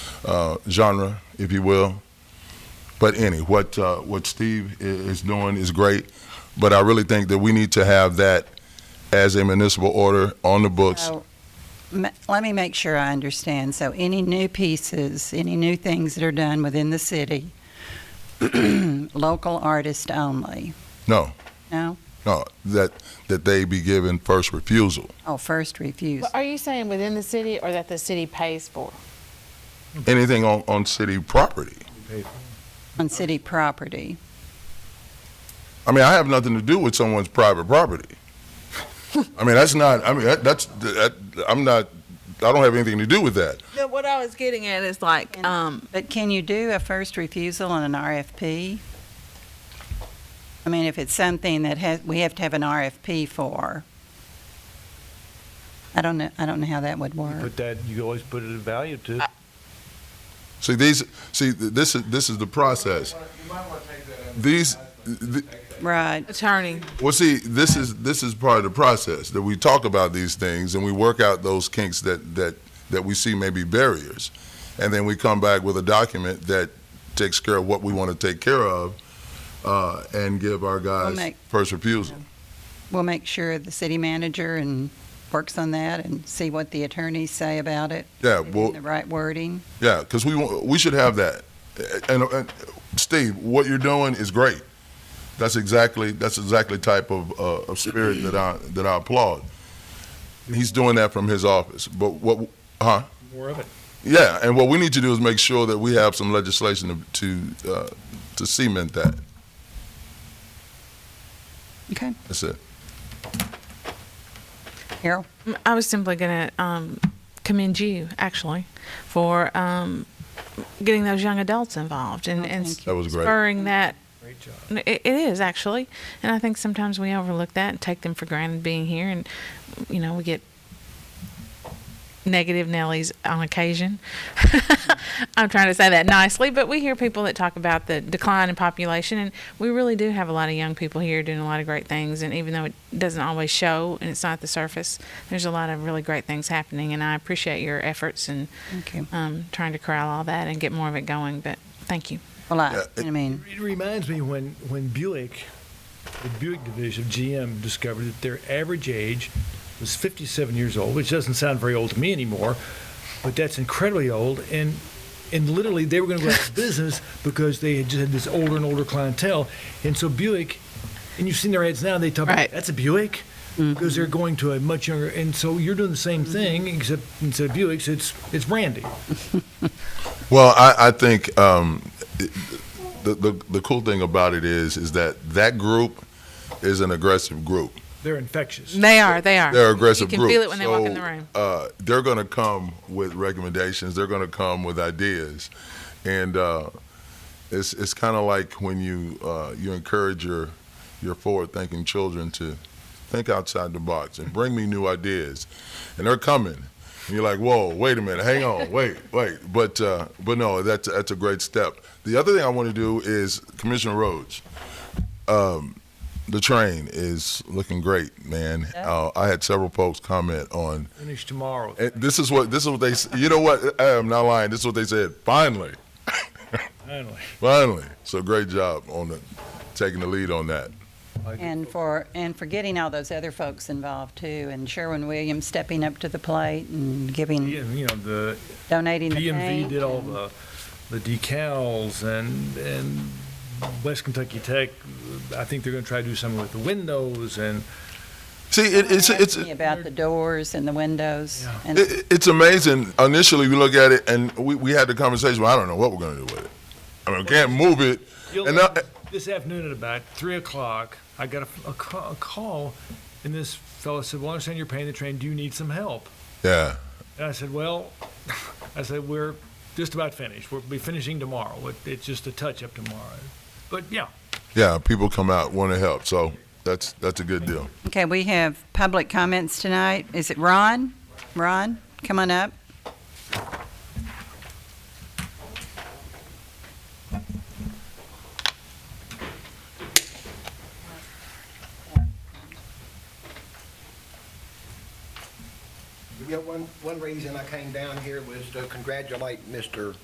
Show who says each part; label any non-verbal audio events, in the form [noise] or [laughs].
Speaker 1: uh, genre, if you will. But any what uh, what Steve i- is doing is great, but I really think that we need to have that as a municipal order on the books.
Speaker 2: So, m- let me make sure I understand. So, any new pieces, any new things that are done within the city, [clears throat] local artist only?
Speaker 1: No.
Speaker 2: No?
Speaker 1: No, that that they be given first refusal.
Speaker 2: Oh, first refuse.
Speaker 3: But are you saying within the city or that the city pays for?
Speaker 1: Anything on, on city property.
Speaker 2: On city property.
Speaker 1: I mean, I have nothing to do with someone's private property. I mean, that's not. I mean, that, that's. That, I'm not. I don't have anything to do with that.
Speaker 4: No, what I was getting at is like,
Speaker 2: And-
Speaker 4: um,
Speaker 2: But can you do a first refusal on an RFP? I mean, if it's something that has, we have to have an RFP for. I don't know, I don't know how that would
Speaker 5: You
Speaker 2: work.
Speaker 5: Put that, you always put it in value to. it.
Speaker 1: See these. See th- this is this is the process. These. th-
Speaker 2: Right.
Speaker 4: attorney,
Speaker 1: Well, see, this is this is part of the process that we talk about these things and we work out those kinks that that that we see may be barriers, and then we come back with a document that takes care of what we want to take care of, uh, and give our guys
Speaker 2: make-
Speaker 1: first refusal.
Speaker 2: We'll make sure the city manager and works on that and see what the attorneys say about it.
Speaker 1: Yeah,
Speaker 2: maybe in
Speaker 1: well,
Speaker 2: The right wording.
Speaker 1: yeah, because we want, we should have that. And, and Steve, what you're doing is great. That's exactly that's exactly type of, uh, of spirit that I that I applaud. He's doing that from his office, but what? Huh?
Speaker 6: More of it.
Speaker 1: Yeah, and what we need to do is make sure that we have some legislation to to, uh, to cement that.
Speaker 2: Okay.
Speaker 1: That's it.
Speaker 2: Carol?
Speaker 3: I was simply going to um, commend you, actually, for um, getting those young adults involved and,
Speaker 2: Oh,
Speaker 3: and
Speaker 2: thank you.
Speaker 1: That was great.
Speaker 3: spurring that.
Speaker 6: Great job.
Speaker 3: It, it is, actually. And I think sometimes we overlook that and take them for granted being here. And, you know, we get negative Nellies on occasion. [laughs] I'm trying to say that nicely, but we hear people that talk about the decline in population, and we really do have a lot of young people here doing a lot of great things. And even though it doesn't always show and it's not at the surface, there's a lot of really great things happening. And I appreciate your efforts and
Speaker 2: Thank you.
Speaker 3: um, trying to corral all that and get more of it going. But thank you.
Speaker 2: Well, I,
Speaker 1: Yeah,
Speaker 2: I mean,
Speaker 6: It reminds me when, when Buick, the Buick division of GM discovered that their average age was 57 years old, which doesn't sound very old to me anymore, but that's incredibly old. And, and literally, they were going to go out of business because they had just had this older and older clientele. And so Buick, and you've seen their ads now, they talk
Speaker 3: Right.
Speaker 6: about that's a Buick. Because they're going to a much younger, and so you're doing the same thing, except instead of Buicks, it's it's Brandy.
Speaker 1: Well, I, I think um, it- the, the the cool thing about it is is that that group is an aggressive group.
Speaker 6: They're infectious.
Speaker 3: They are. They are.
Speaker 1: They're an aggressive
Speaker 3: You can
Speaker 1: group.
Speaker 3: feel it when they walk in
Speaker 1: So,
Speaker 3: the room.
Speaker 1: Uh, they're going to come with recommendations. They're going to come with ideas, and uh, it's it's kind of like when you uh, you encourage your your forward thinking children to think outside the box and bring me new ideas, and they're coming. And you're like, whoa, wait a minute, hang on, wait, wait. But uh, but no, that's that's a great step. The other thing I want to do is Commissioner Rhodes. Um, the train is looking great, man. Uh, I had several folks comment on
Speaker 6: Finish tomorrow.
Speaker 1: and this is what this is what they. s- You know what? I am not lying. This is what they said. Finally,
Speaker 6: Finally.
Speaker 1: finally. So great job on the, taking the lead on that.
Speaker 2: and for, and for getting all those other folks involved too, and Sherwin Williams stepping up to the plate and
Speaker 6: Yeah,
Speaker 2: giving,
Speaker 6: you know, the
Speaker 2: donating the
Speaker 6: DMV
Speaker 2: paint.
Speaker 6: did all
Speaker 2: and-
Speaker 6: the, the decals and, and West Kentucky Tech, I think they're gonna try to do something with the windows and
Speaker 1: See, it, it's it's.
Speaker 2: Asking About the doors and the windows.
Speaker 6: Yeah.
Speaker 2: and-
Speaker 1: It, it's amazing. Initially, we look at it and we, we had the conversation. Well, I don't know what we're going to do with it. I mean, we can't move it.
Speaker 6: You'll-
Speaker 1: And uh, eh. I-
Speaker 6: this afternoon at about three o'clock, I got a, a ca- a call and this fellow said, well, I understand you're paying the train. Do you need some help?
Speaker 1: Yeah.
Speaker 6: And I said, well, [laughs] I said, we're just about finished. We'll be finishing tomorrow. It- It's just a touch up tomorrow. But yeah,
Speaker 1: Yeah. People come out want to help. So that's that's a good deal.
Speaker 2: Okay, we have public comments tonight. Is it Ron? Ron, come on up.
Speaker 7: You know, one, one reason I came down here was to congratulate Mr.